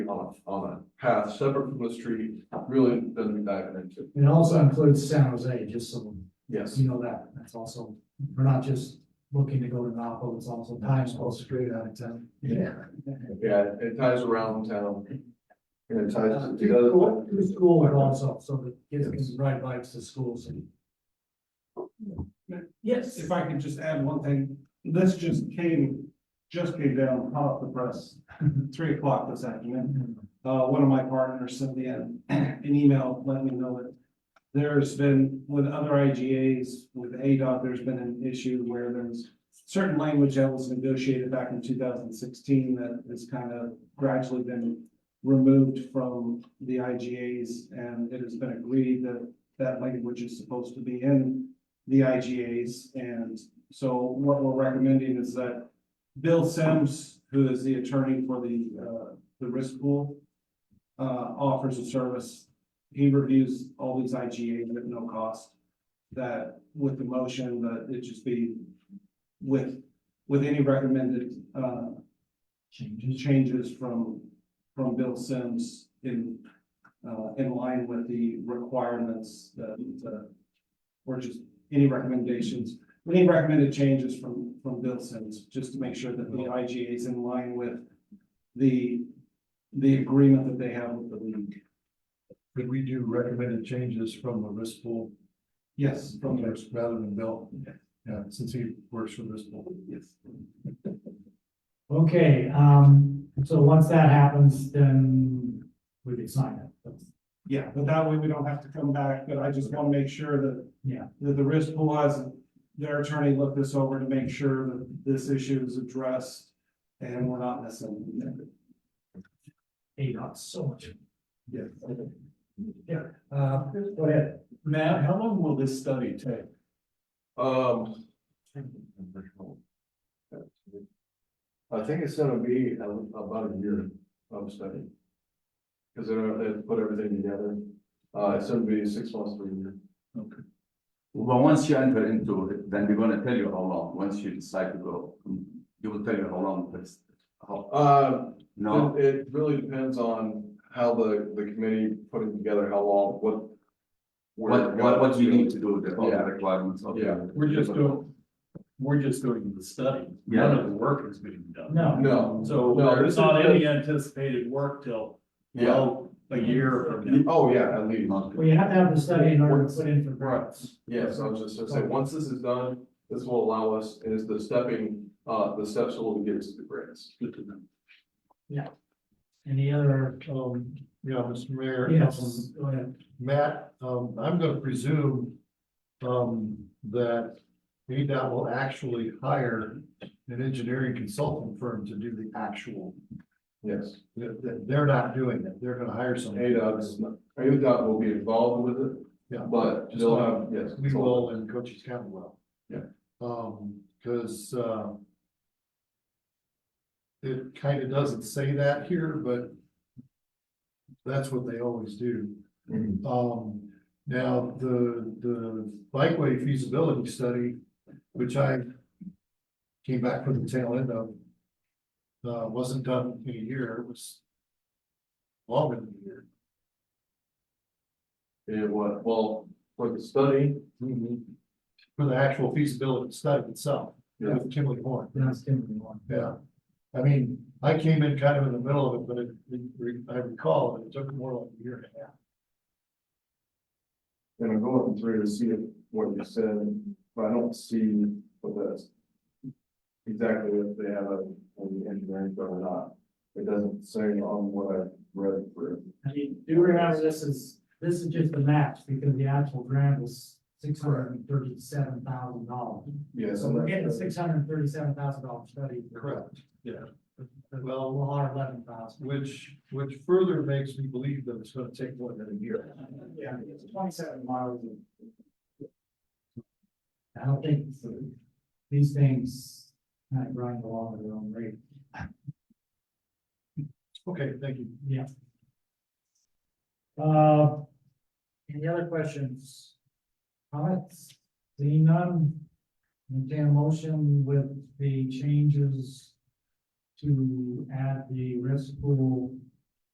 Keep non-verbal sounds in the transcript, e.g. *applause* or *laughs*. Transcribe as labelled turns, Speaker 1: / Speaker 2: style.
Speaker 1: on, a- on a path separate from the street, really doesn't be diving into.
Speaker 2: It also includes San Jose, just so
Speaker 1: Yes,
Speaker 2: you know that, that's also, we're not just looking to go to Napo, it's also Times Square straight out of town.
Speaker 1: Yeah. yeah, it ties around town. And it ties
Speaker 2: Uh,
Speaker 1: to the other one.
Speaker 2: Through through school and also, so the kids can ride bikes to school, so.
Speaker 3: Yes. If I could just add one thing, this just came, just came down hot off the press, *laughs* three o'clock this afternoon. Uh, one of my partners sent me an, *clears throat* an email letting me know that there's been, with other IGAs, with ADOT, there's been an issue where there's certain language that was negotiated back in two thousand sixteen that has kind of gradually been removed from the IGAs, and it has been agreed that that language is supposed to be in the IGAs. And so what we're recommending is that Bill Sims, who is the attorney for the, uh, the risk pool, uh, offers a service. He reviews all these IGAs at no cost. That with the motion, that it just be with, with any recommended, uh,
Speaker 2: Changes.
Speaker 3: changes from, from Bill Sims in, uh, in line with the requirements that, uh, or just any recommendations, any recommended changes from, from Bill Sims, just to make sure that the
Speaker 4: Oh.
Speaker 3: IGA is in line with the, the agreement that they have with the league.
Speaker 4: Could we do recommended changes from the risk pool?
Speaker 3: Yes, from there.
Speaker 4: Rather than Bill? Yeah, since he works for risk pool.
Speaker 3: Yes.
Speaker 2: Okay, um, so once that happens, then we can sign it, That's-
Speaker 3: Yeah, but that way we don't have to come back, but I just want to make sure that.
Speaker 2: Yeah.
Speaker 3: That the risk pool has, their attorney looked this over to make sure that this issue is addressed and we're not missing. anything.
Speaker 2: hey, not so much.
Speaker 3: Yeah.
Speaker 2: Yeah, uh, go ahead.
Speaker 4: Matt, how long will this study take?
Speaker 1: Um. I think it's gonna be a- about a year of study. Cause they're, they put everything together, uh, it's gonna be six months to a year.
Speaker 5: But once you enter into it, then we're gonna tell you how long, once you decide to go, you will tell you how long it's, how,
Speaker 1: Uh,
Speaker 5: no?
Speaker 1: It, it really depends on how the, the committee put it together, how long, what. where
Speaker 5: What,
Speaker 1: it
Speaker 5: what, what
Speaker 1: goes.
Speaker 5: you need to do, the, all the
Speaker 1: Yeah.
Speaker 5: requirements of. the-
Speaker 1: Yeah.
Speaker 6: We're just doing, we're just doing the study. None of the work has been done.
Speaker 2: No,
Speaker 1: No,
Speaker 6: So
Speaker 1: No, this
Speaker 6: there's
Speaker 1: is
Speaker 6: not any
Speaker 1: just-
Speaker 6: anticipated work till,
Speaker 1: yeah,
Speaker 6: well, a year from now.
Speaker 1: oh, yeah, at least,
Speaker 5: Not-
Speaker 2: well, you have to have the study in order to put in for grants.
Speaker 1: yes, I was just gonna say, once this is done, this will allow us, is the stepping, uh, the steps will get us to the grants.
Speaker 2: Any other, um,
Speaker 4: Yeah, Mr. Mayor. um,
Speaker 2: yes, go ahead.
Speaker 4: Matt, um, I'm gonna presume, um, that ADOT will actually hire an engineering consulting firm to do the actual.
Speaker 1: Yes,
Speaker 4: They're, they're not doing it. They're gonna hire some.
Speaker 1: ADOT is not, ADOT will be involved with it,
Speaker 4: Yeah.
Speaker 1: but they'll have, yes.
Speaker 4: We will and Cochise County will.
Speaker 1: Yeah.
Speaker 4: Um, cause, uh. It kinda doesn't say that here, but. That's what they always do.
Speaker 1: Mhm.
Speaker 4: Um, now, the, the bikeway feasibility study, which I. Came back from the tail end of. Uh, wasn't done in a year, it was. Longer than a year.
Speaker 1: It was, well, for the study,
Speaker 4: For the actual feasibility study itself,
Speaker 1: Yeah.
Speaker 4: with Kimberly Horn.
Speaker 2: That's Timothy one.
Speaker 4: Yeah, I mean, I came in kind of in the middle of it, but it- it, re- I recall that it took more like a year and a half.
Speaker 1: And I'm going through to see if what you said, but I don't see what that's. Exactly if they have a, an engineering firm or not. It doesn't say on what I read through.
Speaker 2: I mean, do remember this is, this is just the maps, because the actual grant was six hundred and thirty-seven thousand dollars.
Speaker 1: Yes.
Speaker 2: So we're getting a six hundred and thirty-seven thousand dollar study.
Speaker 4: Correct. Yeah.
Speaker 2: Well, one hundred eleven thousand.
Speaker 4: Which, which further makes me believe that it's gonna take more than a year.
Speaker 2: Yeah, it's twenty-seven miles. of- I don't think these things kind of grind along at their own rate.
Speaker 4: Okay, thank you.
Speaker 2: Yeah. Uh, any other questions? Comments? Seeing none? Entertain a motion with the changes to add the risk pool